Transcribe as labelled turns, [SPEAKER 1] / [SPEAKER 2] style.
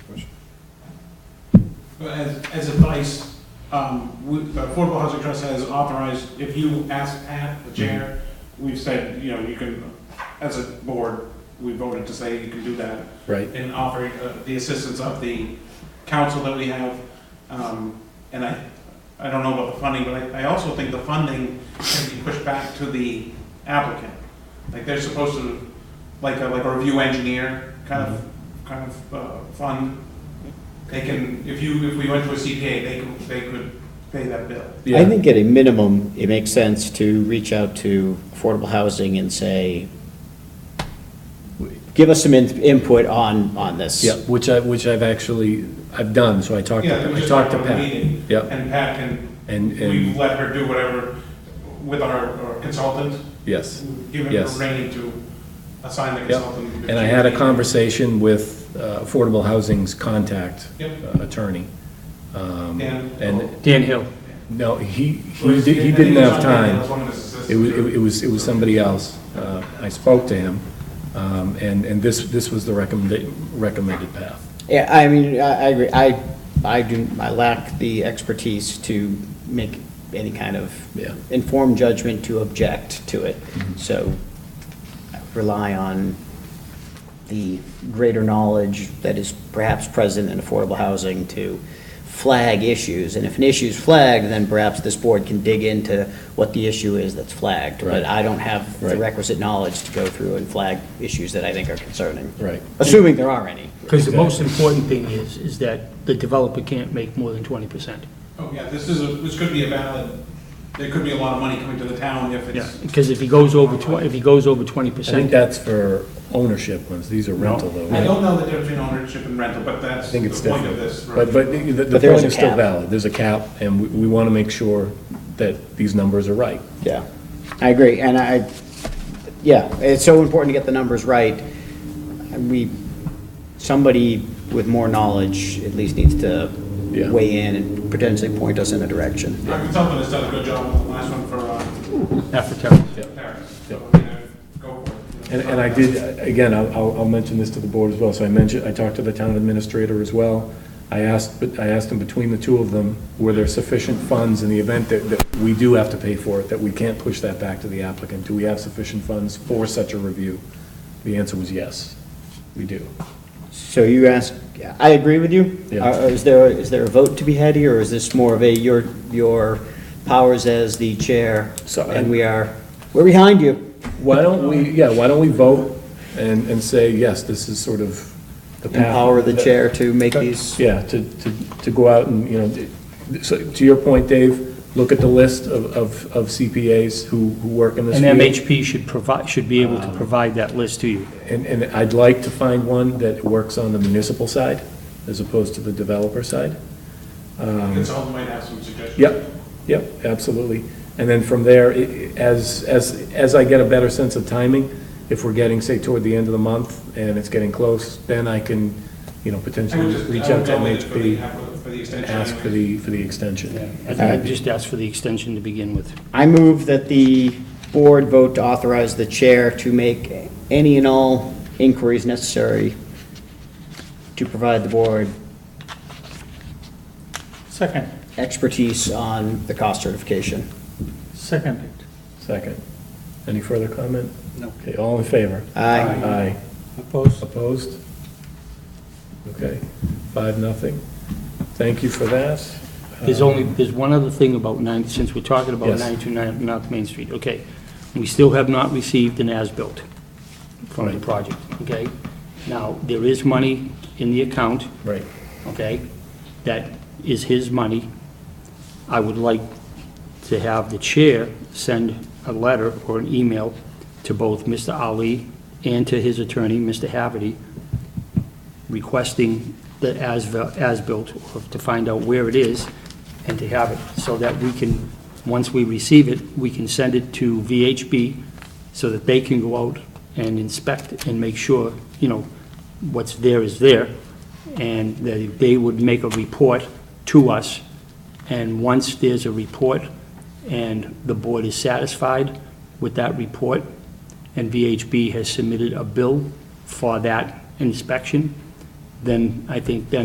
[SPEAKER 1] As, as advice, um, we, Affordable Housing Trust has authorized, if you ask Pat, the chair, we've said, you know, you can, as a board, we voted to say you can do that,
[SPEAKER 2] Right.
[SPEAKER 1] and offer uh, the assistance of the council that we have. Um, and I, I don't know about the funding, but I, I also think the funding can be pushed back to the applicant. Like, they're supposed to, like, a like a review engineer kind of,
[SPEAKER 2] Mm-hmm.
[SPEAKER 1] kind of, uh, fund. They can, if you, if we went to a CPA, they could, they could pay that bill.
[SPEAKER 2] Yeah.
[SPEAKER 3] I think at a minimum, it makes sense to reach out to affordable housing and say, give us some in- input on, on this.
[SPEAKER 2] Yeah, which I, which I've actually, I've done, so I talked,
[SPEAKER 1] Yeah,
[SPEAKER 2] to
[SPEAKER 1] we
[SPEAKER 2] I
[SPEAKER 1] just
[SPEAKER 2] talked to
[SPEAKER 1] have a
[SPEAKER 2] Pat.
[SPEAKER 1] meeting,
[SPEAKER 2] Yeah,
[SPEAKER 1] And Pat can,
[SPEAKER 2] and,
[SPEAKER 1] we
[SPEAKER 2] and,
[SPEAKER 1] let her do whatever with our our consultant.
[SPEAKER 2] yes.
[SPEAKER 1] given
[SPEAKER 2] Yes.
[SPEAKER 1] her reign to assign the
[SPEAKER 2] Yep.
[SPEAKER 1] consultant.
[SPEAKER 2] And I had a conversation with uh, Affordable Housing's contact
[SPEAKER 1] Yep. Oh.
[SPEAKER 2] uh, attorney. um,
[SPEAKER 1] Dan.
[SPEAKER 2] And,
[SPEAKER 4] Dan Hill.
[SPEAKER 2] no, he, he di- he didn't have time. It was, it was, it was somebody else. Uh, I spoke to him, um, and, and this, this was the recommended, recommended path.
[SPEAKER 3] Yeah, I mean, I, I, agree. I, I do, I lack the expertise to make any kind
[SPEAKER 2] Yeah. Mm-hmm.
[SPEAKER 3] of informed judgment to object to it. So I rely on the greater knowledge that is perhaps present in affordable housing to flag issues. And if an issue is flagged, then perhaps this board can dig into what the issue is that's flagged. But
[SPEAKER 2] Right.
[SPEAKER 3] I don't have the
[SPEAKER 2] Right.
[SPEAKER 3] requisite knowledge to go through and flag issues that I think are concerning.
[SPEAKER 2] Right.
[SPEAKER 3] Assuming there are any.
[SPEAKER 4] Because the most important thing is, is that the developer can't make more than 20%.
[SPEAKER 1] Oh, yeah, this is, a this could be a valid, there could be a lot of money coming to the town if
[SPEAKER 4] Yeah,
[SPEAKER 1] it's,
[SPEAKER 4] because if he goes over, twen- if he goes over
[SPEAKER 2] I think
[SPEAKER 4] 20%,
[SPEAKER 2] that's for ownership ones, these are rental though.
[SPEAKER 1] I don't know the difference between ownership and rental, but that's
[SPEAKER 2] I
[SPEAKER 1] the
[SPEAKER 2] think it's
[SPEAKER 1] point of
[SPEAKER 2] different.
[SPEAKER 1] this.
[SPEAKER 2] But, but the- the, the
[SPEAKER 3] But there is
[SPEAKER 2] point
[SPEAKER 3] a
[SPEAKER 2] is still
[SPEAKER 3] cap.
[SPEAKER 2] valid, there's a cap, and we, we want to make sure that these numbers are right.
[SPEAKER 3] Yeah, I agree, and I, yeah, it's so important to get the numbers right. And We, somebody with more knowledge at least needs to
[SPEAKER 2] Yeah.
[SPEAKER 3] weigh in and potentially point us in a direction.
[SPEAKER 1] Our consultant has done a good job with the last one for, uh,
[SPEAKER 4] after term.
[SPEAKER 1] Paris,
[SPEAKER 2] Yep.
[SPEAKER 1] so, you know, go for it.
[SPEAKER 2] And, and I did, again, I'll- I'll, I'll mention this to the board as well, so I mentioned, I talked to the town administrator as well. I asked, but I asked him between the two of them, were there sufficient funds in the event that, that we do have to pay for it, that we can't push that back to the applicant? Do we have sufficient funds for such a review? The answer was yes, we do.
[SPEAKER 3] So you ask, I agree with you.
[SPEAKER 2] Yeah.
[SPEAKER 3] Uh, Is there, is there a vote to be had here, or is this more of a, your, your powers as the chair?
[SPEAKER 2] So-
[SPEAKER 3] And we are, we're behind you.
[SPEAKER 2] Why don't we, yeah, why don't we vote and, and say, yes, this is sort of the path.
[SPEAKER 3] Empower the chair to make these.
[SPEAKER 2] Yeah, to, to, to go out and, you know, d- so to your point, Dave, look at the list of, of of CPAs who, who work in this
[SPEAKER 4] And
[SPEAKER 2] field.
[SPEAKER 4] MHP should provide, should be able
[SPEAKER 2] Um,
[SPEAKER 4] to provide that list to you.
[SPEAKER 2] And, and I'd like to find one that works on the municipal side as opposed to the developer side.
[SPEAKER 1] Consultant might have some suggestions.
[SPEAKER 2] um, Yep, yep, absolutely. And then from there, i- i- as, as, as I get a better sense of timing, if we're getting, say, toward the end of the month and it's getting close, then I can, you know,
[SPEAKER 1] I would
[SPEAKER 2] potentially
[SPEAKER 1] just,
[SPEAKER 2] reach
[SPEAKER 1] I
[SPEAKER 2] out
[SPEAKER 1] would
[SPEAKER 2] to
[SPEAKER 1] go with it for the,
[SPEAKER 2] MHP,
[SPEAKER 1] for the
[SPEAKER 2] and
[SPEAKER 1] extension.
[SPEAKER 2] ask for
[SPEAKER 1] anyway.
[SPEAKER 2] the, for the extension.
[SPEAKER 4] I think I'd just ask for the extension to begin with.
[SPEAKER 3] I move that the board vote to authorize the chair to make any and all inquiries necessary to provide the board
[SPEAKER 4] Second.
[SPEAKER 3] expertise on the cost certification.
[SPEAKER 4] Second.
[SPEAKER 2] Second. Any further comment?
[SPEAKER 4] No.
[SPEAKER 2] Okay, all in favor?
[SPEAKER 3] Aye.
[SPEAKER 2] Aye.
[SPEAKER 4] Opposed?
[SPEAKER 2] Opposed? Okay, five, nothing. Thank you for that.
[SPEAKER 4] There's only, there's one other thing about nine, since we're talking about
[SPEAKER 2] Um, Yes.
[SPEAKER 4] 929 North Main Street, okay. We still have not received an as-built from the
[SPEAKER 2] Right.
[SPEAKER 4] project, okay? Now, there is money in the account,
[SPEAKER 2] Uh, Right.
[SPEAKER 4] okay? That is his money. I would like to have the chair send a letter or an email to both Mr. Ali and to his attorney, Mr. Haverty, requesting the as- as-built, or to find out where it is, and to have it, so that we can, once we receive it, we can send it to VHB, so that they can go out and inspect and make sure, you know, what's there is there, and they they would make a report to us, and once there's a report, and the board is satisfied with that report, and VHB has submitted a bill for that inspection, then I think then